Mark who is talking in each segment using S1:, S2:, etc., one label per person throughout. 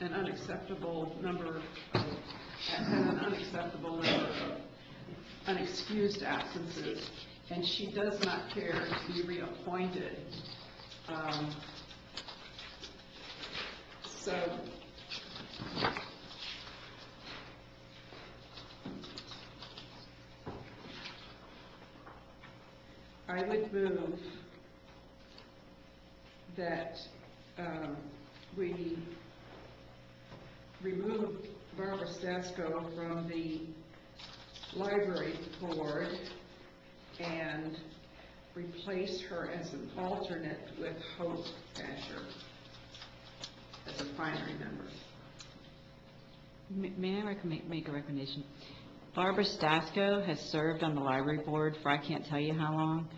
S1: an unacceptable number, of- and an unacceptable number of unexcused absences, and she does not care to be reappointed. Um, So, I would move that um, we remove Barbara Stasko from the library board and replace her as an alternate with Hope Asher as a primary member.
S2: M- May I recom- make a recommendation? Barbara Stasko has served on the library board for I can't tell you how long.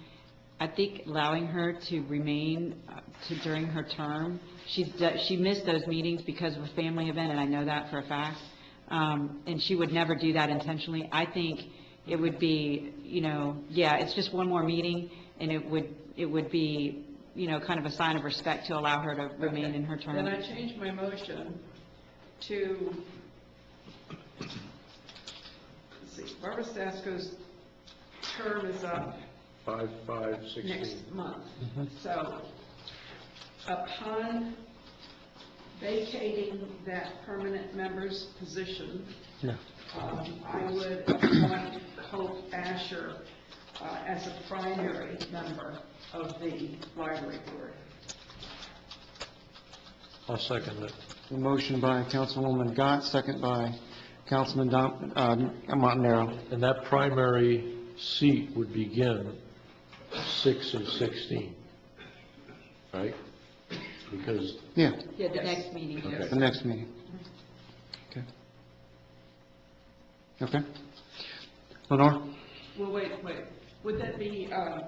S2: I think allowing her to remain uh, to during her term, she's, do- she missed those meetings because of a family event, and I know that for a fact, Um, and she would never do that intentionally. I think it would be, you know, yeah, it's just one more meeting, and it would, it would be, you know, kind of a sign of respect to allow her to remain in her term.
S1: Then I change my motion to, let's see, Barbara Stasko's term is up
S3: Five, five, sixteen.
S1: next month. So upon vacating that permanent member's position,
S4: No.
S1: um, I would appoint Hope Asher uh, as a primary member of the library board.
S3: I'll second it.
S4: A motion by Councilwoman Gott, second by Councilman Don- uh, Montanaro.
S3: And that primary seat would begin six of sixteen, right? Because,
S4: Yeah,
S2: Yeah, the next meeting.
S3: okay,
S4: the next meeting. Okay. Okay. Lenore?
S1: Well, wait, wait, would that be, uh,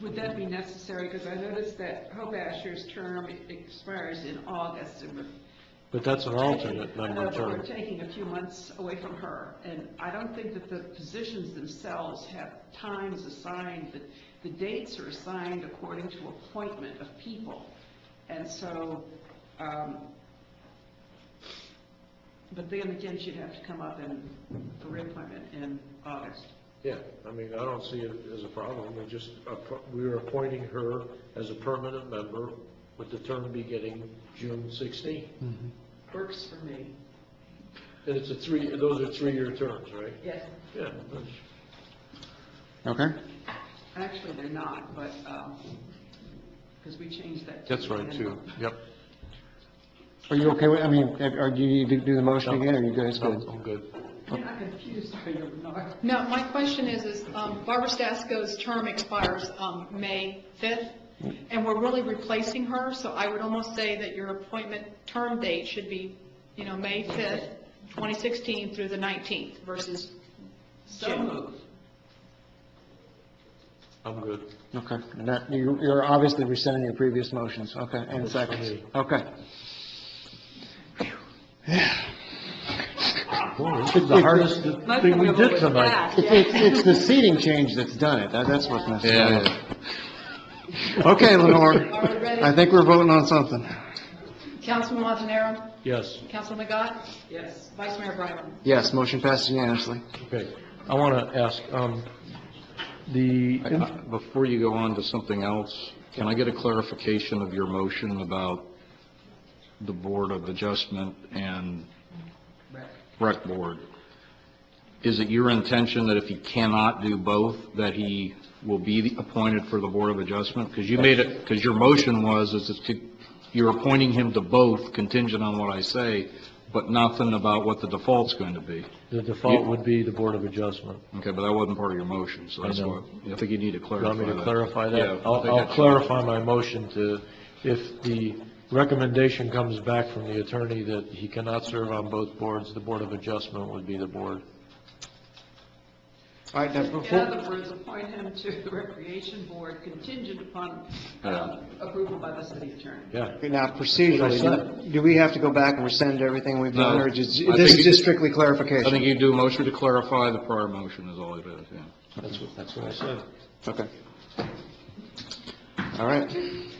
S1: would that be necessary? Because I noticed that Hope Asher's term expires in August, and we're
S3: but that's an alternate
S1: I know,
S3: member
S1: but We're
S3: term.
S1: taking a few months away from her, and I don't think that the positions themselves have times assigned, but the dates are assigned according to appointment of people. And so, um, but then again, she'd have to come up in a reappointment in August.
S3: Yeah, I mean, I don't see it as a problem, we just, appo- we are appointing her as a permanent member with the term beginning June sixteen.
S1: Works for me.
S3: And it's a three, those are three-year terms, right?
S1: Yes.
S3: Yeah, that's-
S4: Okay,
S1: Actually, they're not, but, because we changed that. to
S3: that's right, too, yep.
S4: are you okay with, I mean, are do you need to do the motion again, or you guys
S3: No,
S4: good?
S3: I'm good.
S1: You're not confused, are you, Lenore?
S5: No, my question is, is um, Barbara Stasko's term expires um, May 5th, and we're really replacing her, so I would almost say that your appointment term date should be, you know, May 5th, 2016 through the 19th versus
S1: So moved.
S3: I'm good.
S4: Okay, and that, you- you're obviously rescinding your previous motions, okay, and seconds, okay.
S3: Boy, this is the hardest thing we did tonight.
S4: It's, it's, it's the seating change that's done it, That- that's what's necessary. Okay, Lenore,
S5: Are we ready?
S4: I think we're voting on something.
S5: Councilman Montanaro,
S3: Yes,
S5: Councilman McGott,
S1: Yes.
S5: Vice Mayor Bryan.
S4: Yes, motion passes unanimously.
S3: okay. I want to ask, um, the,
S6: I- I- Before you go on to something else, can I get a clarification of your motion about the Board of Adjustment and Rec Board? Is it your intention that if he cannot do both, that he will be appointed for the Board of Adjustment? Because you made it, because your motion was, is it's to- you're appointing him to both contingent on what I say, but nothing about what the default's going to be.
S3: the default would be the Board of Adjustment.
S6: Okay, but that wasn't part of your motion, so
S3: I
S6: that's
S3: know.
S6: what, I think you need to
S3: You
S6: clarify that.
S3: want me to clarify that?
S6: Yeah. I
S3: I'll,
S6: think
S3: I'll
S6: that's-
S3: clarify my motion to, if the recommendation comes back from the attorney that he cannot serve on both boards, the Board of Adjustment would be the board.
S4: All right, now,
S1: In
S4: before,
S1: other words, appoint him to the recreation board contingent upon
S6: Yeah.
S1: um, approval by the city attorney.
S3: Yeah.
S4: now procedurally, do- do we have to go back and rescind everything we've done,
S6: No.
S4: or just,
S6: I
S4: this
S6: think
S4: is
S6: it-
S4: just strictly
S6: I
S4: clarification?
S6: think you do a motion to clarify the prior motion is all it is, yeah.
S3: That's what, that's what I said.
S4: Okay. All right,